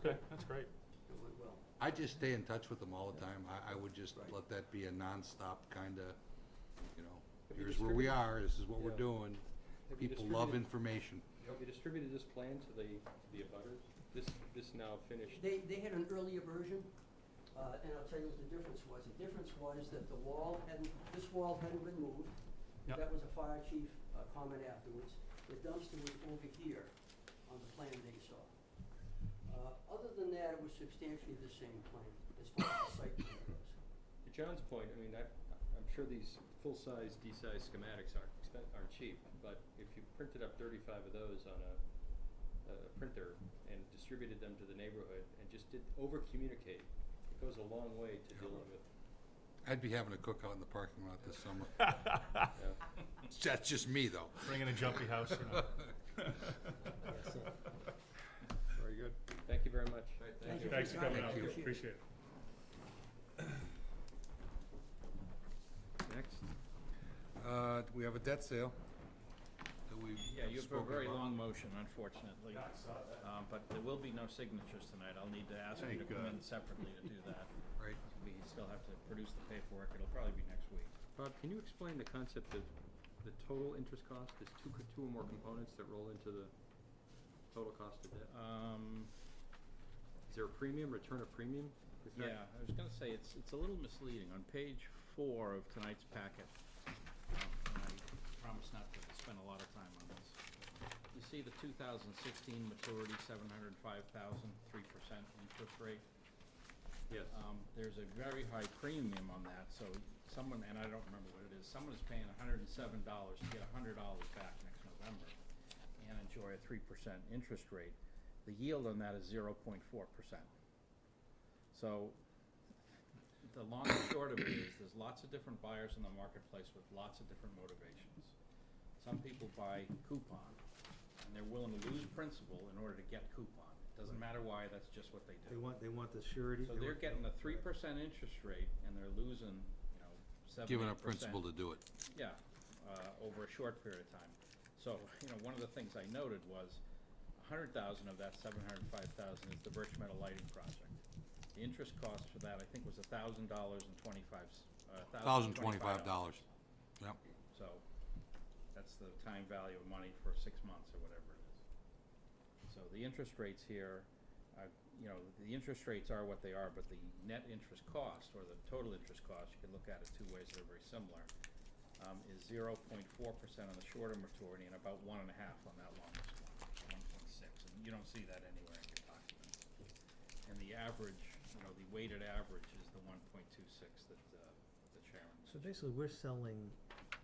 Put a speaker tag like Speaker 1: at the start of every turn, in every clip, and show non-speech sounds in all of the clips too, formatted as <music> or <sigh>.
Speaker 1: Okay, that's great.
Speaker 2: It went well.
Speaker 3: I just stay in touch with them all the time. I, I would just
Speaker 2: Right.
Speaker 3: let that be a nonstop kind of, you know,
Speaker 4: Have you
Speaker 3: here's where we
Speaker 4: distributed-
Speaker 3: are, this is what we're
Speaker 4: Yeah.
Speaker 3: doing.
Speaker 4: Have you
Speaker 3: People love
Speaker 4: distributed-
Speaker 3: information.
Speaker 4: Have you distributed this plan to the, the abutters? This, this now finished?
Speaker 2: They, they had an earlier version, uh, and I'll tell you what the difference was. The difference was that the wall hadn't, this wall hadn't been moved.
Speaker 1: Yep.
Speaker 2: That was a fire chief uh, comment afterwards. The dumpster was over here on the plan they saw. Uh, Other than that, it was substantially the same plan as far as the site plan goes.
Speaker 4: To John's point, I mean, I, I'm sure these full-size, D-size schematics aren't expen aren't cheap, but if you printed up thirty-five of those on a, a printer and distributed them to the neighborhood and just did, over-communicate, it goes a long way to dealing with,
Speaker 3: I'd be having a cookout in the parking lot this summer.
Speaker 4: yeah.
Speaker 3: That's just me, though.
Speaker 1: <laughs> Bring in a jumpy house, you know.
Speaker 3: Very good.
Speaker 4: Thank you very much.
Speaker 2: Thank you.
Speaker 1: Thanks for coming out,
Speaker 3: Thank you.
Speaker 1: appreciate it.
Speaker 4: Next.
Speaker 3: <laughs> Uh, we have a debt sale that we've
Speaker 5: Yeah, you have a
Speaker 3: spoken
Speaker 5: very
Speaker 3: about.
Speaker 5: long motion, unfortunately. Um, But there will be no signatures tonight. I'll need to ask you to
Speaker 3: Thank
Speaker 5: come in
Speaker 3: God.
Speaker 5: separately to do that.
Speaker 3: Right.
Speaker 5: We still have to produce the paperwork. It'll probably be next week.
Speaker 4: Bob, can you explain the concept of the total interest cost? There's two, co- two or more components that roll into the total cost of debt.
Speaker 5: Um,
Speaker 4: Is there a premium, return of premium? Is that-
Speaker 5: Yeah, I was gonna say, it's, it's a little misleading. On page four of tonight's packet, um, and I promise not to spend a lot of time on this. You see the two thousand sixteen maturity, seven hundred five thousand, three percent interest rate.
Speaker 4: Yes.
Speaker 5: Um, there's a very high premium on that, so someone, and I don't remember what it is, someone is paying hundred and seven dollars to get hundred dollars back next November and enjoy a three percent interest rate. The yield on that is zero point four percent. So, the long and short of it is, there's lots of different buyers in the marketplace with lots of different motivations. Some people buy coupon, and they're willing to lose principal in order to get coupon. Doesn't matter why, that's just what they do.
Speaker 6: They want, they want the surety.
Speaker 5: So
Speaker 6: they
Speaker 5: they're getting
Speaker 6: want-
Speaker 5: a three percent interest rate and they're losing, you know, seven,
Speaker 3: Giving
Speaker 5: eight
Speaker 3: up principle to do
Speaker 5: percent.
Speaker 3: it.
Speaker 5: Yeah, uh, over a short period of time. So, you know, one of the things I noted was a hundred thousand of that seven hundred and five thousand is the Birch Meadow Lighting Project. The interest cost for that, I think, was a thousand dollars and twenty-five, uh,
Speaker 3: Thousand twenty-five dollars. Yep.
Speaker 5: So, that's the time value of money for six months or whatever it is. So the interest rates here, uh, you know, the interest rates are what they are, but the net interest cost, or the total interest cost, you can look at it two ways, they're very similar, um, is zero point four percent on the shorter maturity and about one and a half on that longest one, one point six, and you don't see that anywhere in your documents. And the average, you know, the weighted average is the one point two six that, uh, the chairman.
Speaker 6: So basically, we're selling,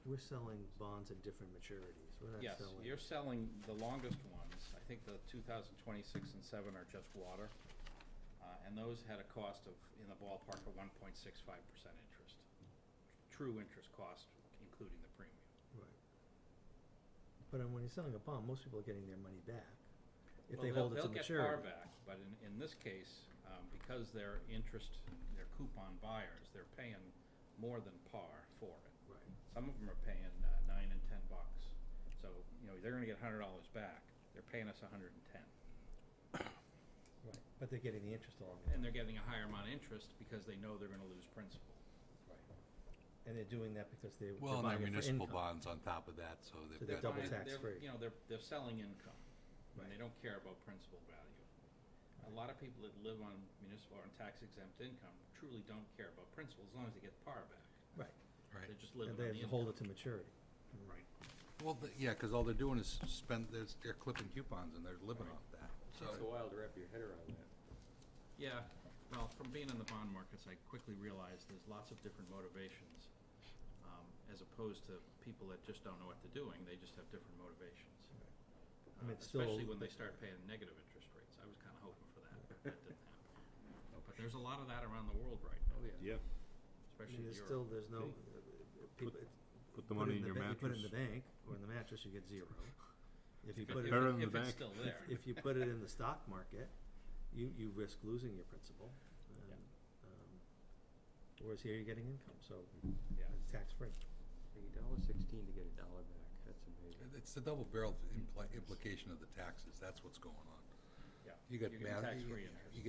Speaker 6: we're selling bonds at different maturities. We're not
Speaker 5: Yes,
Speaker 6: selling.
Speaker 5: you're selling the longest ones. I think the two thousand twenty-six and seven are just water. Uh, and those had a cost of, in the ballpark of one point six five percent interest. True interest cost, including the premium.
Speaker 6: Right. But um, when you're selling a bond, most people are getting their money back if they
Speaker 5: Well,
Speaker 6: hold it to
Speaker 5: they'll- They'll get par
Speaker 6: maturity.
Speaker 5: back, but in, in this case, um, because they're interest, they're coupon buyers, they're paying more than par for it.
Speaker 6: Right.
Speaker 5: Some of them are paying uh, nine and ten bucks. So, you know, they're gonna get hundred dollars back. They're paying us a hundred and ten.
Speaker 6: Right, but they're getting the interest along
Speaker 5: and they're getting a higher amount of interest because they know they're gonna lose principal.
Speaker 6: and they're doing that because they,
Speaker 3: Well,
Speaker 6: they're
Speaker 3: and their
Speaker 6: buying it for
Speaker 3: municipal
Speaker 6: income.
Speaker 3: bonds on top of that, so
Speaker 6: So they're
Speaker 3: they've got.
Speaker 6: double
Speaker 5: Fine,
Speaker 6: tax
Speaker 5: they're-
Speaker 6: free.
Speaker 5: You know, they're, they're selling income, and they
Speaker 6: Right.
Speaker 5: don't care about principal value. A lot of people that live on municipal or on tax exempt income truly don't care about principal, as long as they get par back.
Speaker 6: Right,
Speaker 3: Right.
Speaker 5: They're just
Speaker 6: and
Speaker 5: living on
Speaker 6: they
Speaker 5: the
Speaker 6: have- hold
Speaker 5: income.
Speaker 6: it to maturity.
Speaker 5: Right.
Speaker 3: Well, th- yeah, because all they're doing is spend, they're, they're clipping coupons and they're living off that, so.
Speaker 4: Takes a while to wrap your head around that.
Speaker 5: Yeah, well, from being in the bond markets, I quickly realized there's lots of different motivations, um, as opposed to people that just don't know what they're doing, they just have different motivations.
Speaker 6: I mean,
Speaker 5: Uh,
Speaker 6: it's still-
Speaker 5: Especially when they start paying negative interest rates, I was kinda hoping for that, but that didn't happen.
Speaker 6: <laughs>
Speaker 5: But there's a lot of that around the world right now.
Speaker 4: yeah.
Speaker 6: Oh, I
Speaker 5: Especially
Speaker 6: mean, there's
Speaker 5: Europe.
Speaker 6: still, there's no, uh, people,
Speaker 7: Put the
Speaker 6: put it
Speaker 7: money
Speaker 6: in
Speaker 7: in your
Speaker 6: the ba- You put it in
Speaker 7: mattress.
Speaker 6: the bank, or in the mattress, you get zero. If you
Speaker 5: If it-
Speaker 6: put
Speaker 5: if
Speaker 6: it,
Speaker 7: Better
Speaker 5: it-
Speaker 7: than the
Speaker 5: If it's
Speaker 7: bank.
Speaker 5: still
Speaker 6: if-
Speaker 5: there.
Speaker 6: if you put it in
Speaker 5: <laughs>
Speaker 6: the stock market, you, you risk losing your principal. and,
Speaker 5: Yeah.
Speaker 6: um, Whereas here, you're getting income, so
Speaker 5: Yeah.
Speaker 6: it's tax-free.
Speaker 4: Paying a dollar sixteen to get a dollar back, that's amazing.
Speaker 3: It's the double barrel impli- implication of the taxes, that's what's going on.
Speaker 5: Yeah.
Speaker 3: You got
Speaker 5: You get
Speaker 3: bad,
Speaker 5: tax-free
Speaker 3: you get-
Speaker 5: interest.
Speaker 3: you